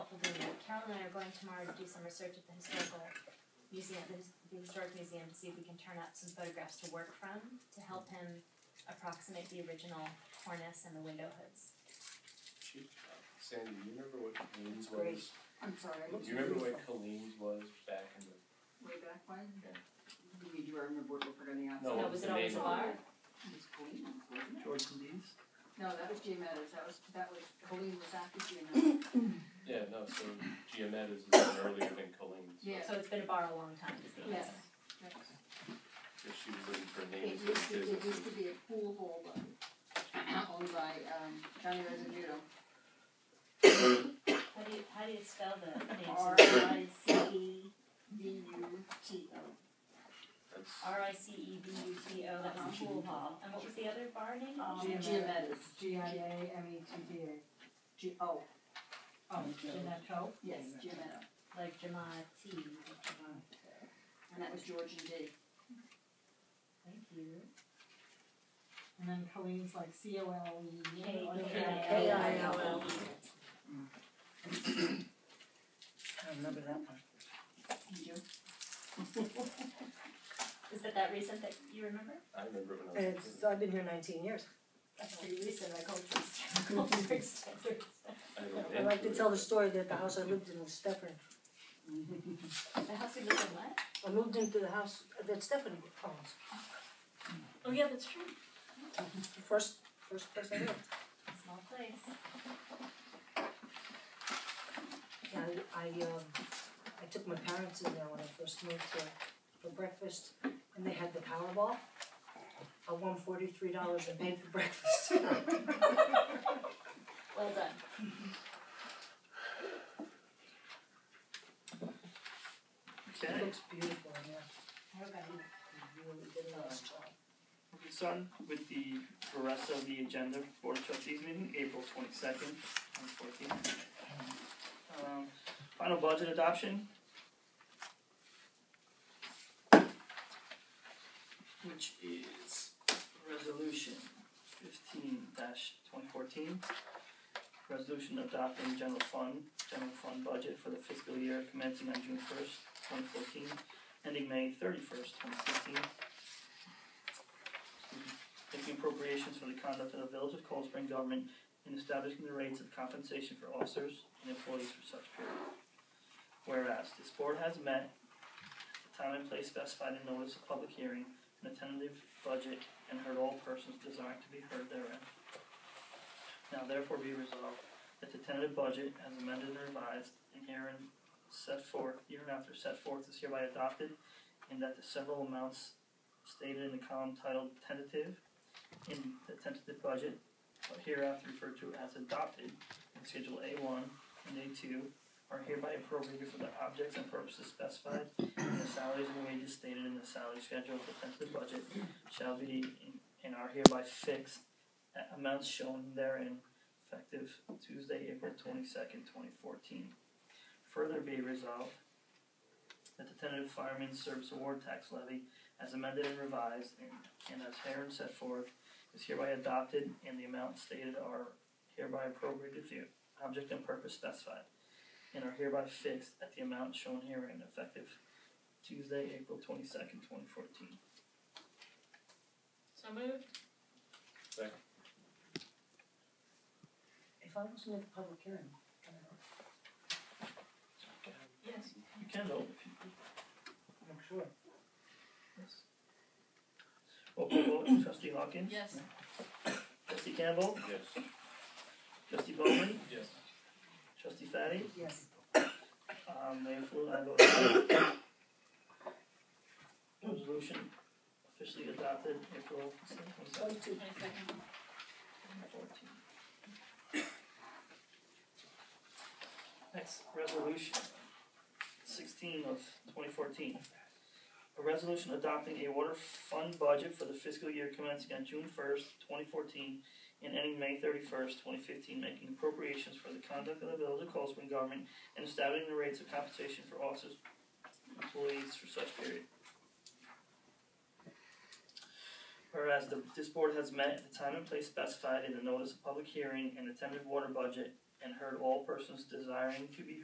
and I are going tomorrow to do some research at the historical museum, the, his- the historic museum, to see if we can turn out some photographs to work from to help him approximate the original cornice and the window hoods. She- Sandy, do you remember what Colleen's Great. was? I'm sorry. Do you remember what Colleen's was back in the? Way back when? Yeah. You mean, do I remember what looked like on Oh, the outside? No, Now, was what it was the always name a of bar? It was Colleen, wasn't it? George Lee's? No, that was Jay Meadows, that was, that was, Colleen was after Jay Meadows. it? Yeah, no, so Giametta's is earlier than Colleen's. Yeah. So it's been a bar a long time, is the Yes. answer. That was- Because she was looking for It names used of to, it used businesses. to be a pool hall though, owned by, um, Johnny Residue. How do you, how do you spell the name? R So I C E D U T O. That's- R I C E B U T O, that was Pool Hall, and what was the other bar name? Um, Jim Meadows. G I A M E T T A. G, oh, Oh, Geneto? yes, Jim Meadows. Like Jamati, And that was George and Dee. thank you. And then Colleen's like C O L E. K- or K- K I L K- L. I remember that one. And you? Is that that recent that you remember? I remember it when I was a It's, kid. I've been here nineteen years. That's pretty recent, I called it historical standards. I looked I like to into tell it. the story that the house I lived in was Stefan. The house we lived in, what? I moved into the house that Stefan owns, Oh, yeah, that's true. the first, first place I lived. Small place. Yeah, I, I, um, I took my parents in there when I first moved here for breakfast, and they had the Powerball. I won forty-three dollars and paid for breakfast. Well done. It Okay, looks beautiful in there, I hope I didn't you really did a nice job. this on with the rest of the agenda, Board of Trustees meeting, April twenty-second and fourteenth. Um, final budget adoption. Which is resolution fifteen twenty fourteen. Resolution adopting general fund, general fund budget for the fiscal year commencing on June first, twenty fourteen, ending May thirty-first, twenty fifteen making appropriations for the conduct of the Village of Cold Spring government in establishing the rates of compensation for officers and employees for such period. Whereas this board has met the time and place specified in notice of public hearing and a tentative budget and heard all persons desiring to be heard therein. Now therefore be resolved that the tentative budget as amended and revised and herein set forth, hereinafter set forth is hereby adopted and that the several amounts stated in the column titled tentative in the tentative budget, but hereafter referred to as adopted in Schedule A1 and A2, are hereby appropriated for the objects and purposes specified, and the salaries and wages stated in the salary schedule of the tentative budget shall be in- and are hereby fixed at amounts shown therein effective Tuesday, April 22nd, 2014. Further be resolved that the tentative fireman's service award tax levy as amended and revised and, and as herein set forth, is hereby adopted and the amounts stated are hereby appropriated to object and purpose specified, and are hereby fixed at the amount shown herein effective Tuesday, April twenty-second, twenty fourteen. So moved. If I wasn't at the public hearing, I don't know. Yes. You can vote if you I'm sure. yes. Roll call vote, trustee Hawkins? Yes. Trustee Campbell? Yes. Trustee Bowman? Yes. Trustee Fatty? Yes. Um, Mayor Flu, I vote aye. Resolution officially adopted April twenty-second. Twenty-two. Next, resolution sixteen of twenty fourteen. A resolution adopting a water fund budget for the fiscal year commencing on June first, twenty fourteen, and ending May thirty-first, twenty fifteen, making appropriations for the conduct of the village of Cold Spring government and establishing the rates of compensation for officers, and employees for such period. Whereas the, this board has met at the time and place specified in the notice of public hearing and the tentative water budget and heard all persons desiring to be